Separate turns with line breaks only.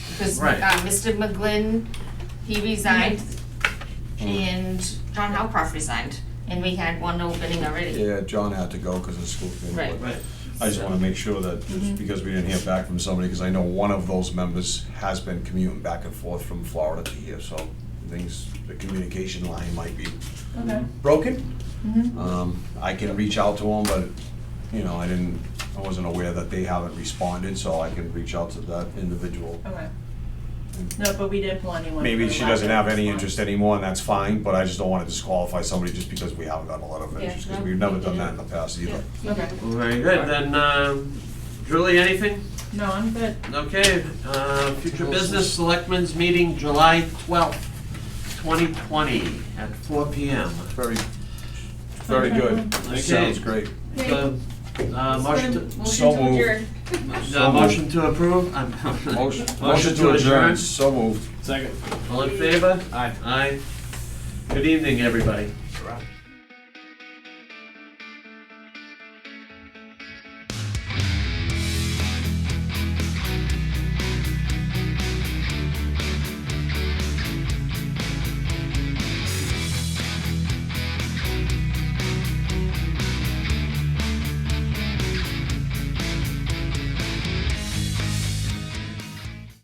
because uh,
Right.
Mr. McGlynn, he resigned, and John Howcroft resigned, and we had one opening already.
Yeah, John had to go because of school committee.
Right. Mm-hmm.
Right,
I just want to make sure that, just because we didn't hear back from somebody, because I know one of those members has been commuting back and forth from Florida to here, so things, the communication line might be
Okay.
broken.
Mm-hmm.
Um, I can reach out to them, but, you know, I didn't, I wasn't aware that they haven't responded, so I can reach out to that individual.
Okay. No, but we didn't pull anyone.
Maybe
for
she
lack
doesn't
of
have any
response.
interest anymore, and that's fine, but I just don't want to disqualify somebody just because we haven't gotten a letter of
Yeah,
interest, because
no,
we've never
we
done that in
didn't.
the past either.
Okay,
Well, very good, then, um, Julie, anything?
no, I'm good.
Okay, uh, future business, selectmen's meeting July twelfth, twenty twenty, at four P M.
Very, very good.
Okay.
Sounds great.
Uh, motion to,
So moved.
uh, motion to approve? I'm-
Motion motion to adjourn, so moved.
Second.
All in favor?
Aye.
Aye. Good evening, everybody.